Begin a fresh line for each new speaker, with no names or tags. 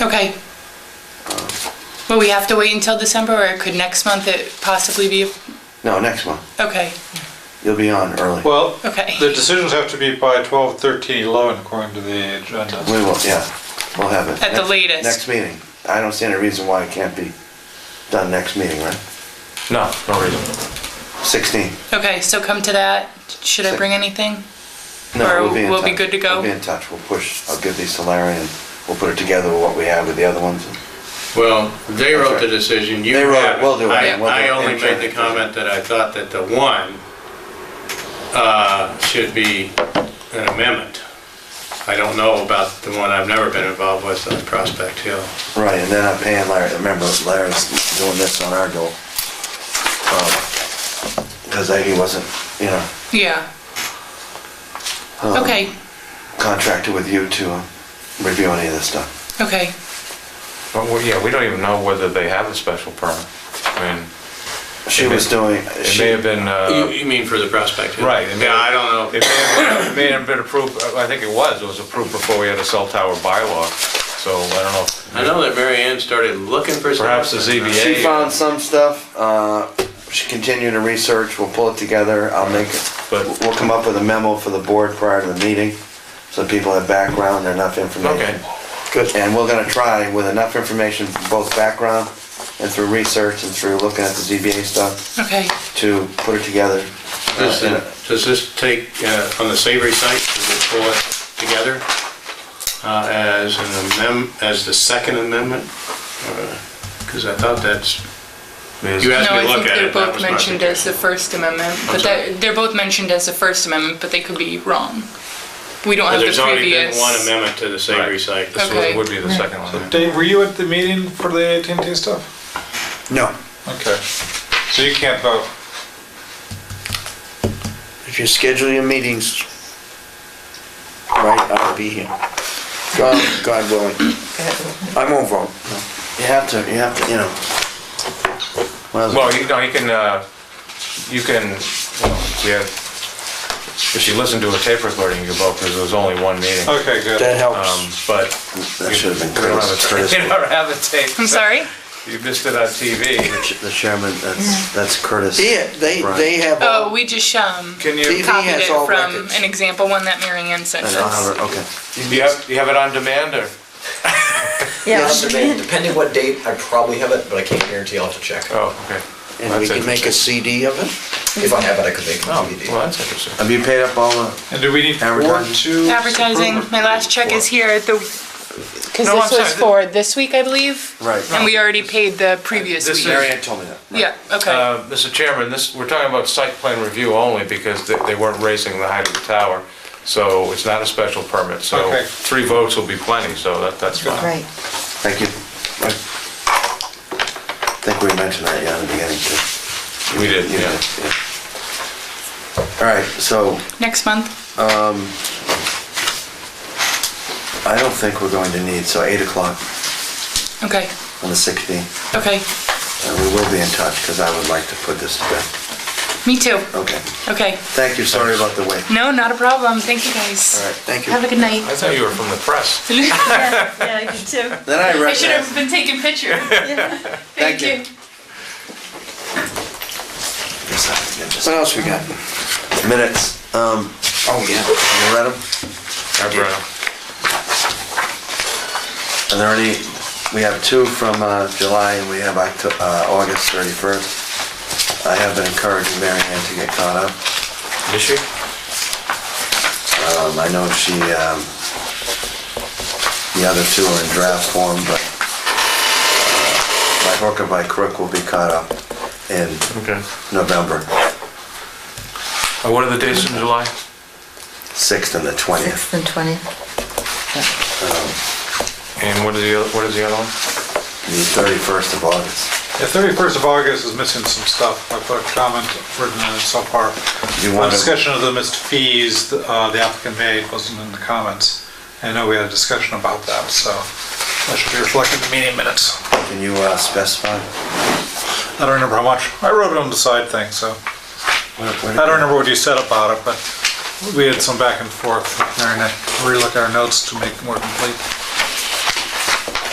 Okay. Will we have to wait until December, or could next month it possibly be,
No, next one.
okay,
You'll be on early.
Well,
Okay.
the decisions have to be by 12, 13, 11, according to the
We
agenda.
will, yeah, we'll have it.
At the
Next-
latest.
Next meeting. I don't see any reason why it can't be done next meeting, right?
No, no reason.
16.
okay, so come to that, should I bring anything?
No,
Or
in
we'll be
touch.
good to go?
We'll be in touch, we'll push, I'll give these to Larry and we'll put it together with what we have with the other ones.
Well, they
That's
wrote
right.
the decision, you
They wrote it.
have it.
We'll do it.
I,
Yeah, we'll do
I
it.
only
Intern
made the
decision.
comment that I thought that the one uh, should be an amendment. I don't know about the one I've never been involved with on Prospect Hill.
Right, and then I'm paying Larry, remember Larry's doing this on our goal. Because he wasn't, you know,
Yeah.
Um,
Okay,
contracted with you to uh, review any of this stuff.
okay,
But, we- yeah, we don't even know whether they have a special permit. I mean,
She
It may-
was doing,
it may
she,
have been,
You
uh,
you mean for the Prospect Hill?
Right.
Yeah, I don't know.
it may have been- it may have been approved, uh, I think it was, it was approved before we had a cell tower bylaw, so I don't know. if-
I know that Mary Ann started looking for something.
Perhaps the ZBA.
she found some stuff, uh, she continued to research, we'll pull it together, I'll make,
But-
we'll come up with a memo for the board prior to the meeting, so people have background and enough information.
Okay,
Good. And we're gonna try with enough information, both background and through research and through looking at the ZBA stuff,
okay.
to put it together. uh,
Does
in a-
it- does this take, uh, on the savory site, does it pull it together uh, as an amendment, as the second amendment? Because I thought that's,
Is-
you asked
No,
me
I
to look
think
at
they're
it. that
both
was my
mentioned
thinking.
as the First Amendment, but
sorry?
they're, they're both mentioned as the First Amendment, but they could be wrong. We don't
But
have the
There's only been
previous.
one amendment to the savory
Right.
site.
this
Okay.
was- would be the second one.
Dave, were you at the meeting for the at and t stuff?
No.
Okay, so you can't vote.
If you schedule your meetings right, I'll be here. God, God willing. I won't vote.
You have to, you have to, you know. Well,
Well, you know, you can, uh, you can, you know, we have, if you listen to a tape recording, you can vote, because there was only one meeting.
Okay, good.
That helps.
Um, But
Oh. that should have been
we don't have
Curtis.
a,
Curtis,
we don't have a tape.
I'm sorry?
You missed it on TV.
The chairman, that's, that's Curtis.
Yeah, they, they have,
Oh,
all-
we just, um,
Can you,
He
copied
has
it
all
from
records.
an example one that Mary Ann sent
And I'll
us.
have her, okay.
do you have, do you have it on demand, or?
Yes, depending- depending what date, I probably have it, but I can't guarantee, I'll have to check.
Oh, okay.
and we
That's
can make a CD of it.
If I have it, I could make a
Oh,
DVD.
well, that's interesting.
Have you paid up all the,
And do we need four
Advertising.
to?
Advertising, my last check is here, the, because
No,
this
I'm
was
sorry.
for this week, I believe.
Right.
And we already paid the previous
This
Mary
week.
Ann told me that. right.
Yeah, okay,
Uh, Mr. Chairman, this, we're talking about site plan review only, because they, they weren't raising the height of the tower, so it's not a special permit, so
Okay.
three votes will be plenty, so that, that's fine.
Right.
Thank you. I think we mentioned that, yeah, in the beginning, too.
We did,
You
yeah.
All right, so
next month,
I don't think we're going to need, so 8 o'clock
okay,
on the 16th.
okay,
And we will be in touch, because I would like to put this to bed.
me too,
Okay.
okay.
Thank you, sorry about the wait.
No, not a problem, thank you guys.
All right, thank you.
Have a good night.
I thought you were from the press.
Yeah, yeah, I did too.
Then I
I should
recognize,
have been taking pictures. Thank
you.
you.
What else we got?
minutes, um,
Oh, yeah.
you read them?
Hi, Bruno.
Are there any, we have two from uh, July and we have Octo- uh, August 31st. I have been encouraging Mary Ann to get caught up.
Did she?
Um, I know she, um, the other two are in draft form, but uh, by hook or by crook will be caught up in
Okay.
November
Uh, What are the dates in July?
6th and the 20th.
Sixth and twentieth.
And what is the, oth- what is the other one?
The 31st of August.
The 31st of August is missing some stuff. I put a comment written in it so far.
You
A
want to-
discussion of the missed fees uh, the applicant made wasn't in the comments. I know we had a discussion about that, so that should be reflected in the meeting minutes.
Can you uh, specify?
I don't remember how much. I wrote it on the side thing, so
Where- where
I
did
don't
you-
remember what you said about it, but we had some back and forth. We're gonna relook our notes to make it more complete.